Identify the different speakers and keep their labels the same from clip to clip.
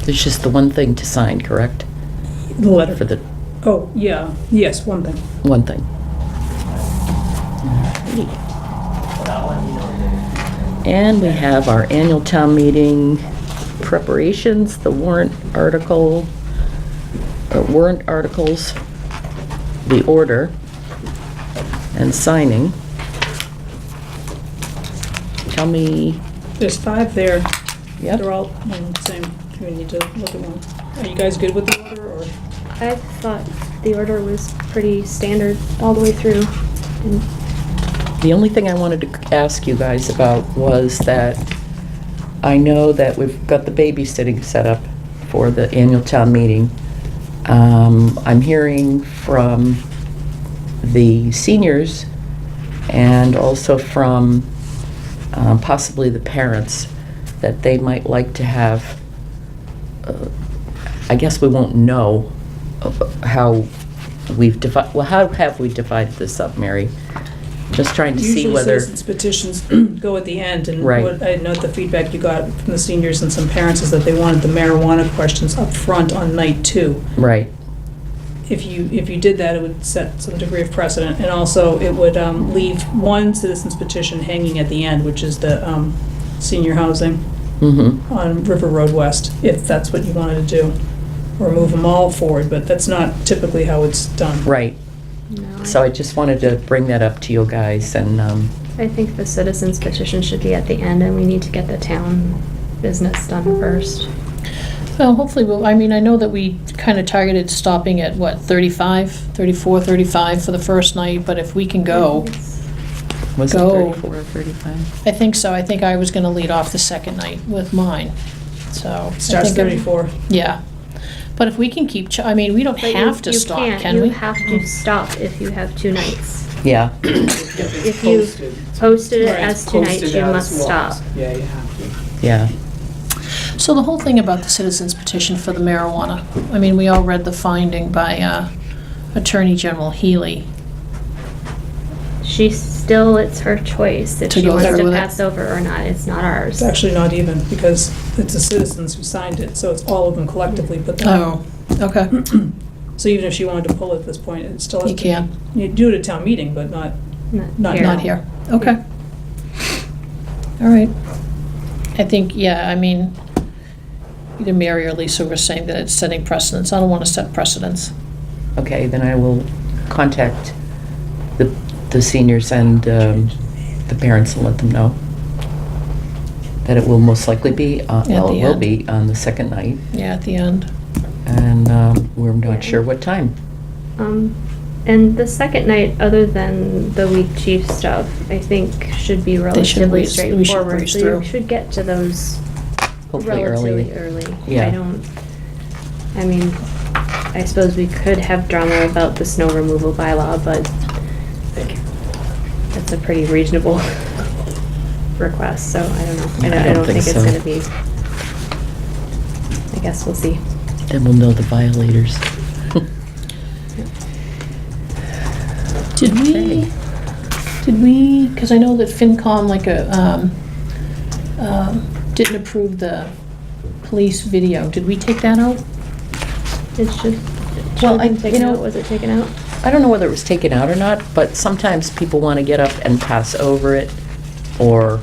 Speaker 1: There's just the one thing to sign, correct?
Speaker 2: The letter.
Speaker 1: For the,
Speaker 2: Oh, yeah, yes, one thing.
Speaker 1: one thing. And we have our annual town meeting preparations, the warrant article, or warrant articles, the order, and signing. Tell me,
Speaker 2: There's five there.
Speaker 1: Yep.
Speaker 2: They're all on the same, we need to look at one. Are you guys good with the order, or?
Speaker 3: I thought the order was pretty standard all the way through. And
Speaker 1: The only thing I wanted to ask you guys about was that I know that we've got the babysitting set up for the annual town meeting. Um, I'm hearing from the seniors and also from um, possibly the parents that they might like to have, uh, I guess we won't know of how we've divided, well, how have we divided this up, Mary? Just trying to see whether.
Speaker 2: Usually citizens petitions go at the end, and
Speaker 1: Right.
Speaker 2: what I note the feedback you got from the seniors and some parents is that they wanted the marijuana questions up front on night two.
Speaker 1: Right,
Speaker 2: If you, if you did that, it would set some degree of precedent, and also it would um, leave one citizen's petition hanging at the end, which is the um, senior housing.
Speaker 1: mm-hmm,
Speaker 2: on River Road West, if that's what you wanted to do, or move them all forward, but that's not typically how it's done.
Speaker 1: right.
Speaker 3: no, I-
Speaker 1: So I just wanted to bring that up to you guys and, um,
Speaker 3: I think the citizens petition should be at the end and we need to get the town business done first.
Speaker 4: Well, hopefully, we'll, I mean, I know that we kind of targeted stopping at, what, 35, 34, 35 for the first night, but if we can go,
Speaker 1: was it
Speaker 4: Go.
Speaker 1: 34 or 35?
Speaker 4: I think so, I think I was gonna lead off the second night with mine, so. I
Speaker 2: Starts
Speaker 4: think I'm-
Speaker 2: 34.
Speaker 4: Yeah, but if we can keep, ch- I mean, we don't
Speaker 3: But you-
Speaker 4: have to
Speaker 3: you
Speaker 4: stop,
Speaker 3: can't.
Speaker 4: can we? Hmm.
Speaker 3: You have to stop if you have two nights.
Speaker 1: Yeah,
Speaker 3: If you posted it as two nights, you must stop.
Speaker 5: Yeah, you have to.
Speaker 1: yeah.
Speaker 4: So the whole thing about the citizens petition for the marijuana, I mean, we all read the finding by uh, Attorney General Healy.
Speaker 3: She still, it's her choice if
Speaker 4: To
Speaker 3: she
Speaker 4: go
Speaker 3: wants
Speaker 4: through
Speaker 3: to
Speaker 4: with it.
Speaker 3: pass over or not. It's not ours.
Speaker 2: It's actually not even, because it's the citizens who signed it, so it's all of them collectively, but,
Speaker 4: Oh, okay,
Speaker 2: so even if she wanted to pull it at this point, it still has to.
Speaker 4: you can,
Speaker 2: You do it at town meeting, but not, Not-
Speaker 4: not here, okay. All right. I think, yeah, I mean, either Mary or Lisa were saying that it's setting precedence. I don't want to set precedence.
Speaker 1: Okay, then I will contact the, the seniors and um, the parents and let them know that it will most likely be, uh,
Speaker 4: At
Speaker 1: well,
Speaker 4: the
Speaker 1: it will
Speaker 4: end.
Speaker 1: be on the second night,
Speaker 4: Yeah, at the end.
Speaker 1: and um, we're not sure what time.
Speaker 3: Um, and the second night, other than the week chief stuff, I think should be relatively
Speaker 4: breeze- we should
Speaker 3: straightforward.
Speaker 4: breeze
Speaker 3: So
Speaker 4: through.
Speaker 3: you should get to those
Speaker 1: Hopefully early.
Speaker 3: relatively early.
Speaker 1: Yeah.
Speaker 3: I don't, I mean, I suppose we could have drama about the snow removal bylaw, but like, that's a pretty reasonable request, so I don't know. I don't, I don't think it's
Speaker 1: so.
Speaker 3: gonna be, I guess we'll see.
Speaker 1: Then we'll know the violators.
Speaker 4: Did we,
Speaker 1: Okay.
Speaker 4: did we, because I know that FinCom, like, a, um, um, didn't approve the police video. Did we take that out?
Speaker 3: It should, it should
Speaker 1: Well,
Speaker 3: have
Speaker 1: I-
Speaker 3: been
Speaker 1: you
Speaker 3: taken
Speaker 1: know-
Speaker 3: out. Was it taken out?
Speaker 1: I don't know whether it was taken out or not, but sometimes people want to get up and pass over it, or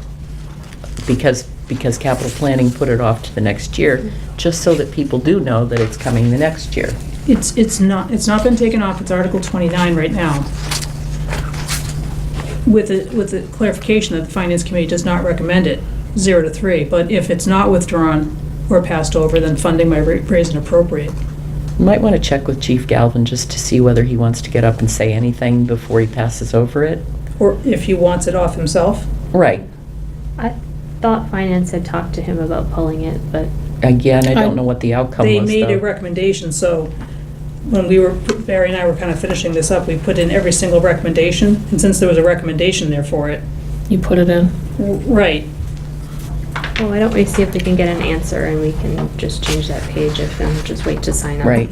Speaker 1: because, because capital planning put it off to the next year, just so that people do know that it's coming the next year.
Speaker 2: it's, it's not, it's not been taken off, it's Article 29 right now. With the, with the clarification that the Finance Committee does not recommend it, zero to three, but if it's not withdrawn or passed over, then funding might ra- raise and appropriate.
Speaker 1: You Might want to check with Chief Galvin just to see whether he wants to get up and say anything before he passes over it.
Speaker 2: Or if he wants it off himself,
Speaker 1: Right.
Speaker 3: I thought finance had talked to him about pulling it, but
Speaker 1: Again, I
Speaker 4: I-
Speaker 1: don't know what the outcome
Speaker 2: they
Speaker 1: was,
Speaker 2: made a
Speaker 1: though.
Speaker 2: recommendation, so when we were, Barry and I were kind of finishing this up, we put in every single recommendation, and since there was a recommendation there for it,
Speaker 4: You put it in?
Speaker 2: w- right,
Speaker 3: well, oh, why don't we see if we can get an answer and we can just change that page if, and just wait to sign up.
Speaker 1: Right.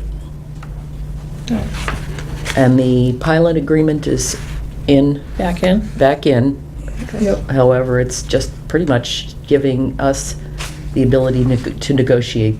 Speaker 1: And the pilot agreement is in,
Speaker 4: Back in?
Speaker 1: back in.
Speaker 2: Yep.
Speaker 1: However, it's just pretty much giving us the ability neg- to negotiate